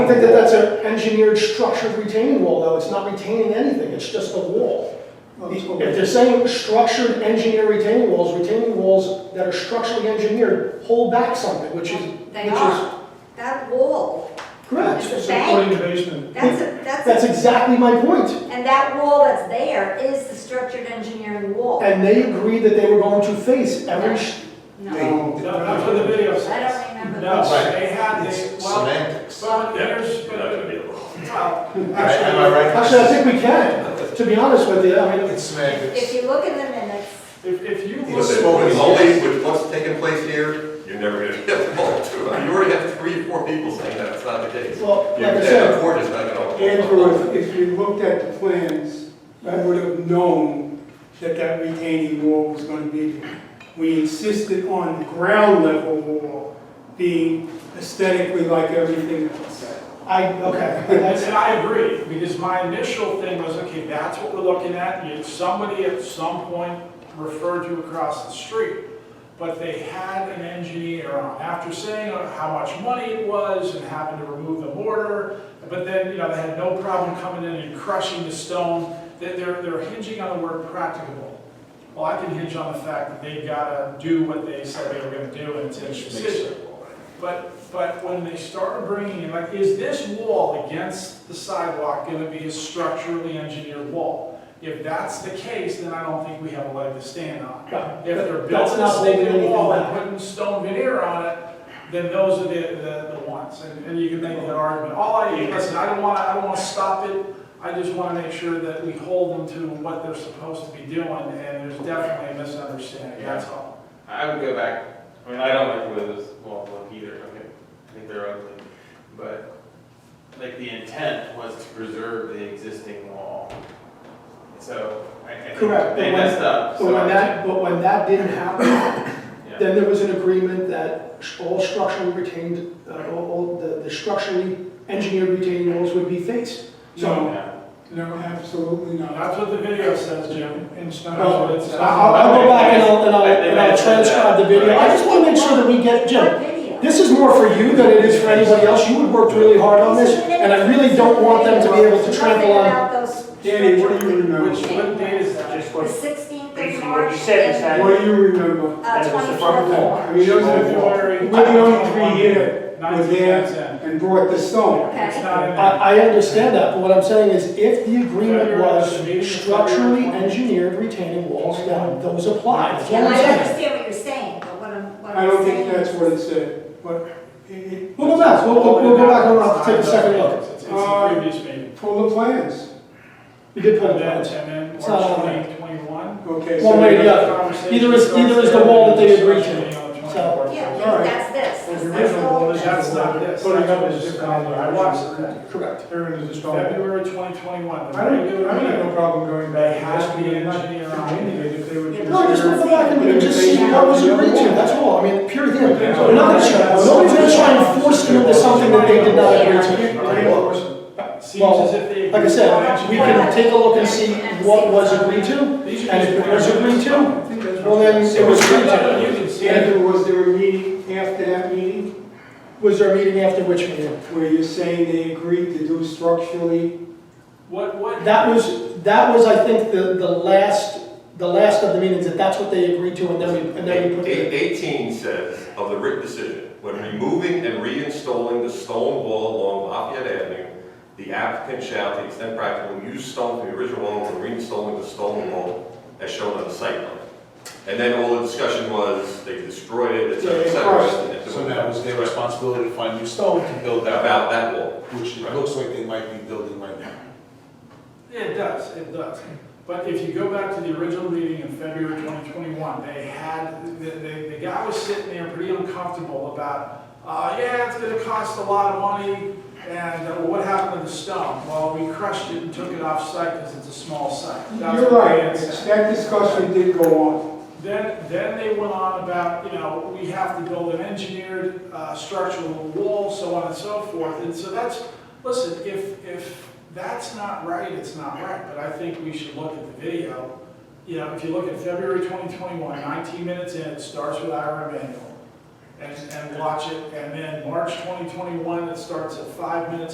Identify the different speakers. Speaker 1: think that that's an engineered structured retaining wall, though, it's not retaining anything, it's just a wall. If they're saying structured engineered retaining walls, retaining walls that are structurally engineered hold back something, which is,
Speaker 2: They
Speaker 1: which is.
Speaker 2: are. That wall,
Speaker 1: Correct.
Speaker 2: It's a
Speaker 3: Supporting
Speaker 2: bank.
Speaker 3: the basement.
Speaker 2: That's a, that's
Speaker 1: That's
Speaker 2: a,
Speaker 1: exactly my point.
Speaker 2: and that wall that's there is the structured engineering wall.
Speaker 1: And they agreed that they were going to face every, sh-
Speaker 2: No,
Speaker 3: No, That's what the video
Speaker 2: I
Speaker 3: says.
Speaker 2: don't remember.
Speaker 3: No,
Speaker 2: that.
Speaker 3: they had, they,
Speaker 4: It's
Speaker 3: well,
Speaker 4: semantics.
Speaker 3: well,
Speaker 5: Yeah,
Speaker 3: there's,
Speaker 5: you're not gonna be able to.
Speaker 3: well,
Speaker 4: Right, Am I
Speaker 3: actually,
Speaker 4: right?
Speaker 1: actually, I think we can, to be honest with you, I mean,
Speaker 4: It's
Speaker 2: If
Speaker 4: semantics.
Speaker 2: you look in the minutes,
Speaker 3: if, if you
Speaker 4: It's
Speaker 3: look,
Speaker 4: spoken only with what's taking place here.
Speaker 5: You're never gonna.
Speaker 4: You have multiple- you already have three, four people saying that, it's not the case.
Speaker 1: well, like
Speaker 4: Yeah,
Speaker 1: I
Speaker 4: the
Speaker 1: said,
Speaker 4: court is not gonna.
Speaker 6: Andrew, if, if you looked at the plans, I would have known that that retaining wall was gonna be there. We insisted on the ground level wall being aesthetically like everything else.
Speaker 1: I, okay, that's,
Speaker 3: and I agree, because my initial thing was, okay, that's what we're looking at, and somebody at some point referred to across the street. But they had an engineer on, after saying how much money it was and having to remove the mortar, but then, you know, they had no problem coming in and crushing the stone, They- they're, they're hinging on the word practicable. Well, I can hinge on the fact that they've gotta do what they said they were gonna do and it's a decision. But, but when they started bringing in, like, is this wall against the sidewalk gonna be a structurally engineered wall? If that's the case, then I don't think we have a leg to stand on.
Speaker 1: Yeah.
Speaker 3: If they're
Speaker 1: That's not
Speaker 3: building a
Speaker 1: holding
Speaker 3: stinking
Speaker 1: anything
Speaker 3: wall and
Speaker 1: back.
Speaker 3: putting stone veneer on it, then those are the, the, the ones. And, and you can make that argument. All I, listen, I don't wanna, I don't wanna stop it. I just wanna make sure that we hold them to what they're supposed to be doing, and there's definitely a misunderstanding, that's all.
Speaker 7: I would go back, I mean, I don't like the way this wall look either, I mean, I think they're ugly, but, like, the intent was to preserve the existing wall. So, I, I
Speaker 1: Correct,
Speaker 7: think they
Speaker 1: but when-
Speaker 7: messed up,
Speaker 1: but
Speaker 7: so.
Speaker 1: when that, but when that didn't happen,
Speaker 7: yeah.
Speaker 1: Then there was an agreement that all structurally retained, uh, all, all the, the structurally engineered retaining walls would be faced. So,
Speaker 6: No,
Speaker 7: Yeah.
Speaker 6: no, absolutely not.
Speaker 3: That's what the video says, Jim, and it's not what it says.
Speaker 1: uh, Oh, I'll, I'll go back and I'll, and I'll, and I'll transcribe the video. I just wanna make sure that we get,
Speaker 2: what
Speaker 1: Jim,
Speaker 2: video?
Speaker 1: this is more for you than it is for anybody else. You had worked really hard on this, and I really don't want them to be able to trample
Speaker 2: Nothing
Speaker 1: on.
Speaker 2: about those
Speaker 6: Danny, what do you
Speaker 2: structures.
Speaker 6: remember?
Speaker 3: Which, what date is that?
Speaker 2: The sixteenth of
Speaker 8: Basically,
Speaker 2: March.
Speaker 8: what you said is
Speaker 2: and,
Speaker 8: that-
Speaker 6: What do you remember?
Speaker 2: Uh,
Speaker 8: that was the
Speaker 2: twenty-four.
Speaker 8: front wall.
Speaker 6: I mean, those are the four,
Speaker 3: February.
Speaker 6: we're the only three here that were
Speaker 3: 1910.
Speaker 6: there and brought the stone.
Speaker 2: Okay.
Speaker 3: It's not in there.
Speaker 1: I, I understand that, but what I'm saying is if the agreement was structurally engineered retaining walls, then those apply. That's
Speaker 2: Yeah,
Speaker 1: all I'm
Speaker 2: I
Speaker 1: saying.
Speaker 2: understand what you're saying, but what I'm, what
Speaker 6: I
Speaker 2: I'm
Speaker 6: don't
Speaker 2: saying.
Speaker 6: think that's what it said, but it, it,
Speaker 1: We'll go back, we'll, we'll, we'll go back and we'll have to take a second look. Uh,
Speaker 3: It's it's the previous meeting.
Speaker 6: pull the plans.
Speaker 1: We did put it
Speaker 3: And then,
Speaker 1: down.
Speaker 3: and then
Speaker 1: It's not
Speaker 3: March
Speaker 1: on there.
Speaker 3: twenty twenty-one.
Speaker 6: Okay, so.
Speaker 1: One way or the other. Either is- either is the wall that they agreed to. So-
Speaker 2: Yeah,
Speaker 6: All right.
Speaker 2: that's this.
Speaker 6: Well,
Speaker 2: That's
Speaker 6: the
Speaker 2: the
Speaker 6: original
Speaker 2: whole-
Speaker 6: one is-
Speaker 3: That's not this.
Speaker 6: Putting up
Speaker 3: That's
Speaker 6: is
Speaker 3: just
Speaker 6: different.
Speaker 3: another- I watched that.
Speaker 1: Correct.
Speaker 6: There it is, it's gone.
Speaker 3: February twenty twenty-one.
Speaker 6: I don't, I don't have no problem going back and
Speaker 3: Has to
Speaker 6: asking
Speaker 3: be
Speaker 6: them not to
Speaker 3: engineered.
Speaker 6: continue it if they would
Speaker 2: Yeah,
Speaker 1: No, just
Speaker 6: consider-
Speaker 1: go back and we can just see what was agreed to, that's all, I mean, pure thing. We're not gonna try, nobody's gonna try and force them into something that they did not agree to.
Speaker 3: Seems as if they.
Speaker 1: Like I said, we can take a look and see what was agreed to, and if it was agreed to,
Speaker 6: I think that's
Speaker 1: well then, it was agreed
Speaker 3: You
Speaker 1: to.
Speaker 3: can see it.
Speaker 6: Andrew, was there a meeting after that meeting
Speaker 1: Was there a meeting after which meeting?
Speaker 6: where you're saying they agreed to do structurally?
Speaker 3: What, what?
Speaker 1: That was, that was, I think, the, the last, the last of the meetings, that that's what they agreed to, and then we, and then we put it.
Speaker 4: Eight- 18 says of the written decision, when removing and reinstalling the stone wall along Lafayette Avenue, the applicant shall, to the extent practical, use stone from the original wall when reinstalling the stone wall as shown on the site plan. And then all the discussion was, they destroyed it, et cetera, et cetera. and it-
Speaker 9: So that was their responsibility to find new stone to build that
Speaker 4: About
Speaker 9: out,
Speaker 4: that wall.
Speaker 9: which it looks like they might be building right now.
Speaker 3: It does, it does. But if you go back to the original meeting in February 2021, they had, the, the, the guy was sitting there pretty uncomfortable about, uh, yeah, it's gonna cost a lot of money, and uh, what happened to the stone? Well, we crushed it and took it off site because it's a small site. That's
Speaker 6: You're
Speaker 3: what
Speaker 6: right,
Speaker 3: they had said.
Speaker 6: that discussion did go on.
Speaker 3: Then, then they went on about, you know, we have to build an engineered uh, structural wall, so on and so forth. And so that's, listen, if, if that's not right, it's not right, but I think we should look at the video. You know, if you look at February 2021, 19 minutes in, it starts with Ira Emanuel. And, and watch it, and then March 2021, it starts at five minutes